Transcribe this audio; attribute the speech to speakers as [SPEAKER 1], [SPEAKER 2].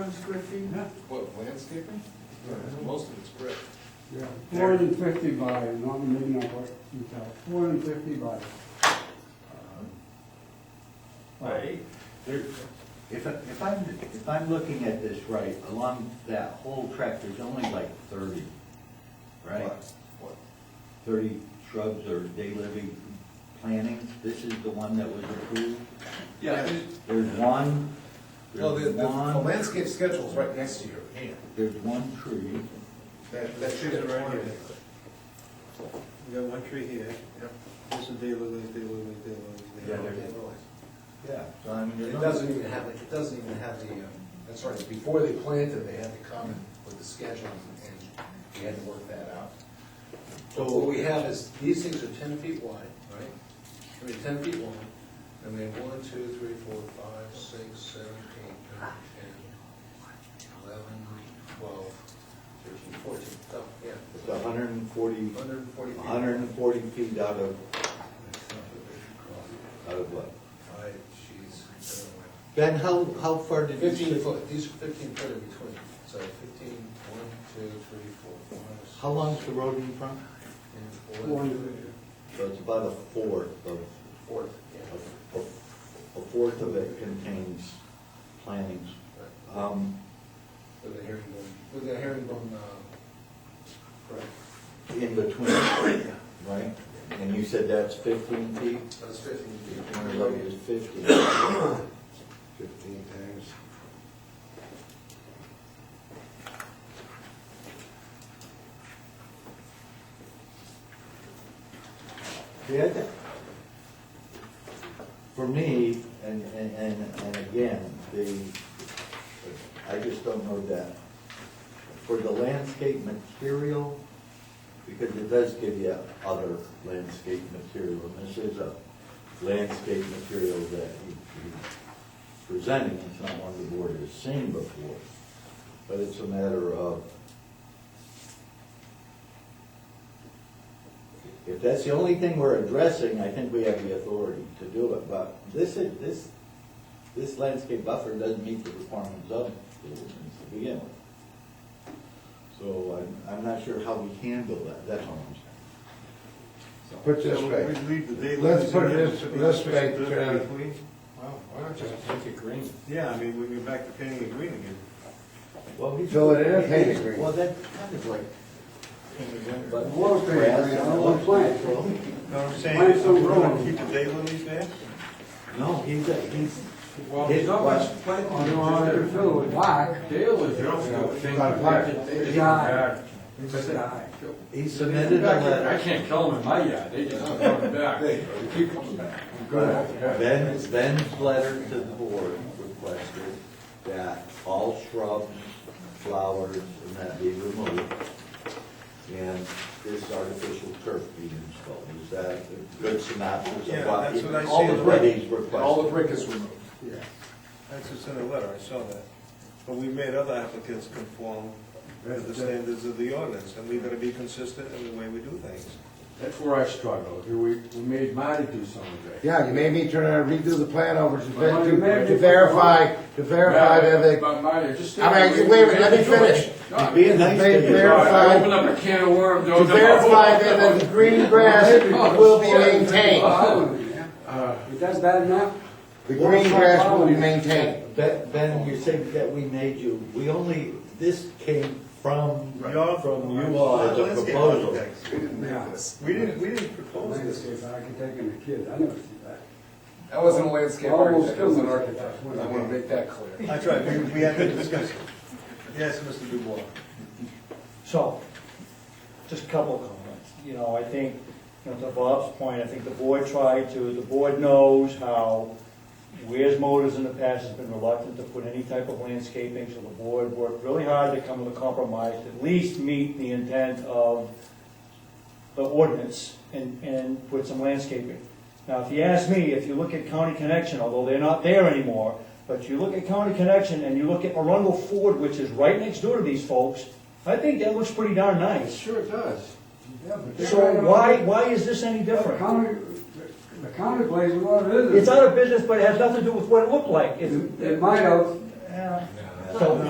[SPEAKER 1] hundred square feet?
[SPEAKER 2] What, landscaping? Most of it's brick.
[SPEAKER 3] Yeah, four hundred and fifty by, not maybe not what you tell, four hundred and fifty by. uh,
[SPEAKER 2] Uh-huh.
[SPEAKER 4] Right. If, I- if I'm, if I'm looking at this right, along that whole track, there's only like thirty, right?
[SPEAKER 2] What? What?
[SPEAKER 4] Thirty shrubs or day living plantings, this is the one that was approved?
[SPEAKER 2] Yeah, it-
[SPEAKER 4] There's one,
[SPEAKER 2] well, the, the
[SPEAKER 4] there's
[SPEAKER 2] the
[SPEAKER 4] one,
[SPEAKER 2] landscape schedule's right next to your hand.
[SPEAKER 4] there's one tree,
[SPEAKER 2] That, that should have right here.
[SPEAKER 1] We got one tree here,
[SPEAKER 2] Yep.
[SPEAKER 1] there's a daylilies, daylilies, daylilies.
[SPEAKER 4] Yeah, there
[SPEAKER 1] daylilies.
[SPEAKER 4] is. yeah, so I mean,
[SPEAKER 2] It
[SPEAKER 4] there's
[SPEAKER 2] doesn't even have, the- it doesn't even have the, um, that's right, before they planted, they had to come in with the schedule and we had to work that out. So what we have is, these things are ten feet wide, right? I mean, ten feet long, and they have one, two, three, four, five, six, seven, eight, nine, ten, eleven, twelve, thirteen, fourteen, oh, yeah.
[SPEAKER 4] It's a hundred and forty,
[SPEAKER 2] Hundred and forty feet.
[SPEAKER 4] a hundred and forty feet out of,
[SPEAKER 2] Subdivision crossing.
[SPEAKER 4] out of what?
[SPEAKER 2] I, jeez, I don't know.
[SPEAKER 4] Ben, how, how far did you?
[SPEAKER 2] Fifteen foot, these are fifteen foot in between, so fifteen, one, two, three, four, five.
[SPEAKER 4] How long's the road in front?
[SPEAKER 2] six,
[SPEAKER 3] Four
[SPEAKER 2] One,
[SPEAKER 3] hundred,
[SPEAKER 4] So it's about a fourth of,
[SPEAKER 2] fourth, yeah.
[SPEAKER 4] a, a- a fourth of it contains plantings.
[SPEAKER 2] Right.
[SPEAKER 4] Um,
[SPEAKER 2] With a herringbone, with a herringbone, uh, correct,
[SPEAKER 4] in between, right? And you said that's fifteen feet?
[SPEAKER 2] that's fifteen feet.
[SPEAKER 4] One of those is fifteen.
[SPEAKER 2] Fifteen times.
[SPEAKER 4] The other, for me, and, and, and and again, the, I just don't know that. For the landscape material, because it does give you other landscape material, and this is a landscape material that he- he's presenting, it's not one the board has seen before. But it's a matter of, If that's the only thing we're addressing, I think we have the authority to do it, but this is, this, this landscape buffer doesn't meet the requirements of the ordinance to begin with. So I'm, I'm not sure how we handle that, that's all I'm saying.
[SPEAKER 5] Put this
[SPEAKER 1] So
[SPEAKER 5] way,
[SPEAKER 1] We leave the daylilies.
[SPEAKER 5] let's put
[SPEAKER 1] in
[SPEAKER 5] this,
[SPEAKER 1] to be
[SPEAKER 5] let's make,
[SPEAKER 1] restricted
[SPEAKER 5] uh,
[SPEAKER 1] if we-
[SPEAKER 5] well, why don't you
[SPEAKER 4] Just make it green.
[SPEAKER 1] Yeah, I mean, we go back to painting it green again.
[SPEAKER 4] Well, he's.
[SPEAKER 5] So it is painted green.
[SPEAKER 4] Well, that's kind of like, but.
[SPEAKER 3] Well, it's painted green, I don't want plants.
[SPEAKER 1] No, I'm saying,
[SPEAKER 3] Why is it so
[SPEAKER 1] we're gonna
[SPEAKER 3] wrong?
[SPEAKER 1] keep the daylilies there?
[SPEAKER 4] No, he's, a- he's.
[SPEAKER 6] Well,
[SPEAKER 4] his
[SPEAKER 6] there's not
[SPEAKER 4] question-
[SPEAKER 6] much planting.
[SPEAKER 3] Oh, no, I can fill it with black.
[SPEAKER 6] Dale is.
[SPEAKER 5] Not black.
[SPEAKER 6] It's
[SPEAKER 3] Yeah.
[SPEAKER 6] bad. It's bad.
[SPEAKER 4] He submitted a letter.
[SPEAKER 6] I can't kill them in my yard, they just come back.
[SPEAKER 2] They, they keep coming back.
[SPEAKER 4] Ben's, Ben's letter to the board requested that all shrubs, flowers, and that be removed, and this artificial turf be installed. Is that a good synopsis
[SPEAKER 1] Yeah,
[SPEAKER 4] of what
[SPEAKER 1] that's what I
[SPEAKER 4] all
[SPEAKER 1] see.
[SPEAKER 4] the parties
[SPEAKER 2] All the
[SPEAKER 4] requested?
[SPEAKER 2] brick is removed.
[SPEAKER 1] That's what's in the letter, I saw that. But we made other applicants conform to the standards of the ordinance, and we gotta be consistent in the way we do things.
[SPEAKER 6] That's where I struggle, we, we made Marty do some of that.
[SPEAKER 5] yeah, you made me turn around and redo the plan over to
[SPEAKER 3] Well, you made
[SPEAKER 5] ver-
[SPEAKER 3] me-
[SPEAKER 5] to verify, to verify that they,
[SPEAKER 6] But Marty, just.
[SPEAKER 5] I mean, wait a minute, let me finish.
[SPEAKER 6] No, I-
[SPEAKER 4] Being nice to
[SPEAKER 5] They
[SPEAKER 4] you.
[SPEAKER 6] I
[SPEAKER 5] verify-
[SPEAKER 6] opened up a can of worms.
[SPEAKER 5] to verify that the green grass will be maintained.
[SPEAKER 2] Uh,
[SPEAKER 3] If that's bad enough,
[SPEAKER 5] The green grass will be maintained.
[SPEAKER 4] Ben, Ben, you said that we made you, we only, this came from,
[SPEAKER 1] Right. Your-
[SPEAKER 4] from you all as a
[SPEAKER 1] Landscape
[SPEAKER 4] proposal.
[SPEAKER 1] architects.
[SPEAKER 2] We didn't make this.
[SPEAKER 1] We didn't, we didn't propose this.
[SPEAKER 3] landscape architect and a kid, I never see that.
[SPEAKER 2] That wasn't a landscape
[SPEAKER 3] Almost
[SPEAKER 2] architect, it was an
[SPEAKER 3] killed me.
[SPEAKER 2] architect. I wanna make that clear.
[SPEAKER 1] I tried, we, we had that discussion. Yes, Mr. Dubois.
[SPEAKER 7] So, just a couple of comments. You know, I think, you know, to Bob's point, I think the board tried to, the board knows how Weir's Motors in the past has been reluctant to put any type of landscaping, so the board worked really hard to come with a compromise, to at least meet the intent of the ordinance and, and put some landscaping. Now, if you ask me, if you look at County Connection, although they're not there anymore, but you look at County Connection and you look at Arundel Ford, which is right next door to these folks, I think that looks pretty darn nice.
[SPEAKER 6] Sure it does.
[SPEAKER 3] Yeah, but they're not
[SPEAKER 7] So
[SPEAKER 3] gonna-
[SPEAKER 7] why, why is this any
[SPEAKER 3] The
[SPEAKER 7] different?
[SPEAKER 3] county, the county plays a lot of business.
[SPEAKER 7] It's out of business, but it has nothing to do with what it looked like. It's-
[SPEAKER 3] It it might have,
[SPEAKER 7] Yeah.
[SPEAKER 4] So-